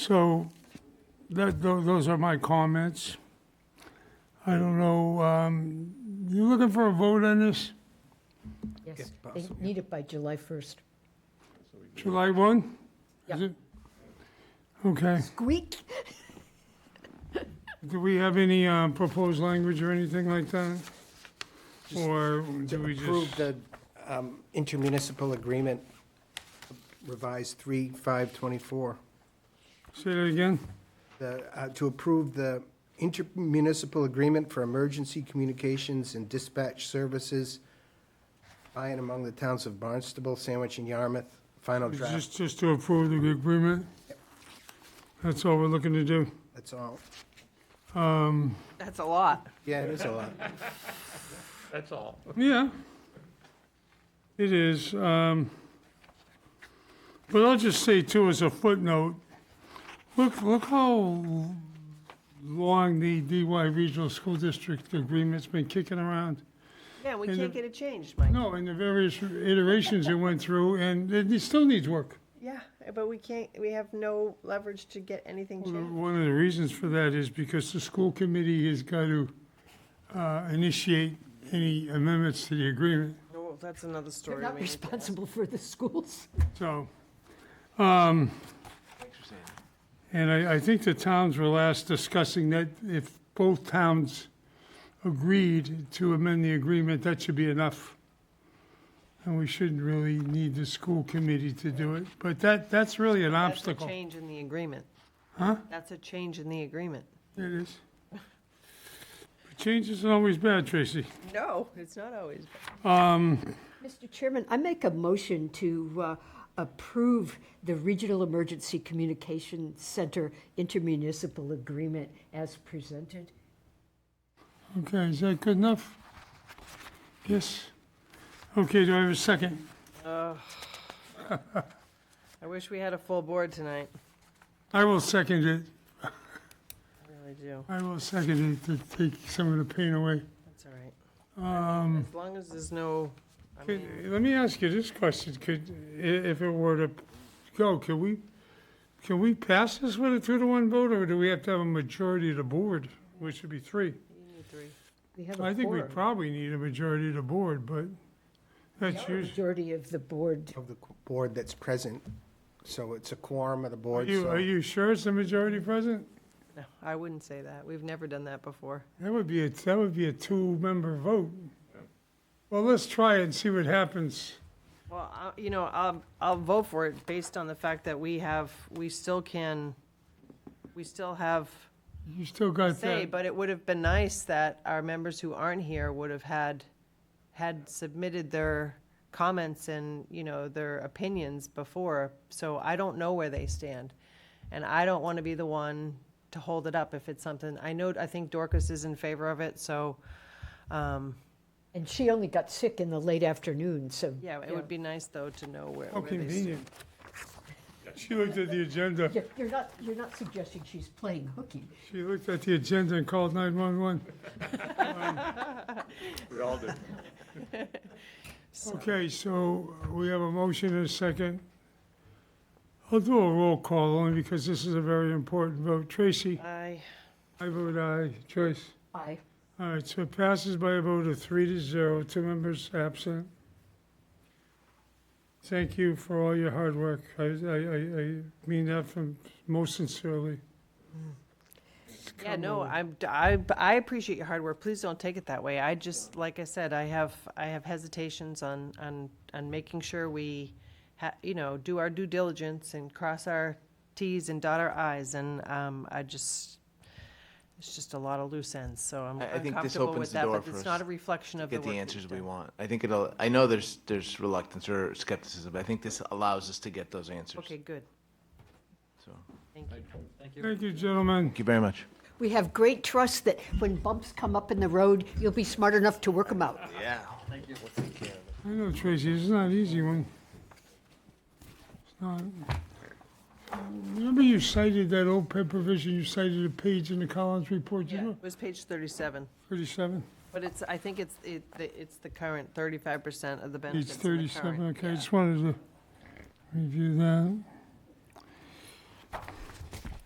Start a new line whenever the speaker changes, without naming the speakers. So that, tho- those are my comments. I don't know, um, you looking for a vote on this?
Yes, they need it by July 1st.
July 1?
Yeah.
Is it? Okay.
Squeak.
Do we have any uh, proposed language or anything like that? Or do we
Approve
just,
the um, intermunicipal agreement revised 3/5/24.
say that again?
The, uh, To approve the intermunicipal agreement for emergency communications and dispatch services by and among the towns of Barnstable, Sandwich, and Yarmouth. Final draft,
Just, just to approve the agreement? That's all we're looking to do?
that's all.
um,
That's a lot.
Yeah, it is a lot.
That's all.
Yeah. It is. um, But I'll just say too, as a footnote, look, look how long the DY Regional School District agreement's been kicking around.
Yeah, we
And
can't
the-
get it changed, Mike.
No, and the various iterations it went through, and it still needs work.
Yeah, but we can't, we have no leverage to get anything changed.
One of the reasons for that is because the school committee has got to uh, initiate any amendments to the agreement.
Oh, that's another
They're
story.
not responsible for the schools.
So, um, and I, I think the towns were last discussing that if both towns agreed to amend the agreement, that should be enough. And we shouldn't really need the school committee to do it, but that, that's really an
That's a
obstacle. It
change in the agreement.
Huh?
That's a change in the agreement.
is. But Change isn't always bad, Tracy.
No, it's not always.
Mr. Chairman, I make a motion to uh, approve the Regional Emergency Communication Center intermunicipal agreement as presented.
Okay, is that good enough? Yes? Okay, do I have a second?
I wish we had a full board tonight.
I will second it.
I really do.
I will second it to take some of the pain away.
That's all right. As long as there's no, I
Um, Could-
mean,
Let me ask you this question, could, i- if it were to go, can we, can we pass this with a two-to-one vote, or do we have to have a majority of the board, which would be three?
you need three.
We have
I
a
think we
quorum.
probably need a majority of the board, but that's usually,
Majority of the board.
Of the board that's present, so it's a quorum of the
are
board,
you, are
so
you sure it's the majority present?
No, I wouldn't say that. We've never done that before.
That would be, a that would be a two-member vote. Well, let's try it and see what happens.
Well, I- you know, I'll, I'll vote for it based on the fact that we have, we still can, we still have
You still got
say,
that,
but it would have been nice that our members who aren't here would have had, had submitted their comments and, you know, their opinions before, so I don't know where they stand. And I don't want to be the one to hold it up if it's something, I know, I think Dorcas is in favor of it, so, um,
And she only got sick in the late afternoon, so.
yeah, it would be nice, though, to know where,
how
where they stand.
convenient. She looked at the agenda.
You're you're not, you're not suggesting she's playing hooky.
She looked at the agenda and called 911.
We all do.
Okay, so we have a motion and a second. I'll do a roll call only because this is a very important vote. Tracy,
I,
I vote aye. Joyce?
Aye.
All right, so it passes by a vote of three to zero, two members absent. Thank you for all your hard work. I, I, I I mean that from most sincerely.
Yeah, no, I'm, I, I appreciate your hard work. Please don't take it that way. I just, like I said, I have, I have hesitations on, on, on making sure we ha, you know, do our due diligence and cross our Ts and dot our Is, and, um, I just, it's just a lot of loose ends, so I'm
I- I think this
uncomfortable
opens
with
the
that,
door
but
for
it's
us
not a reflection of the
get
work.
the
we've
answers we
done.
want. I think it'll, I know there's, there's reluctance or skepticism, but I think this allows us to get those answers.
Okay, good.
So,
Thank you.
Thank you, gentlemen.
Thank you very much.
We have great trust that when bumps come up in the road, you'll be smart enough to work them out.
Yeah.
I know, Tracy, it's not an easy one. It's not. Remember you cited that old pen provision, you cited a page in the Collins report, you
Yeah,
know,
it was page thirty-seven,
thirty-seven?
but it's, I think it's, it, it's the current thirty-five percent of the
Page
benefits. in the current,
thirty-seven, okay,
yeah.
just wanted to review that.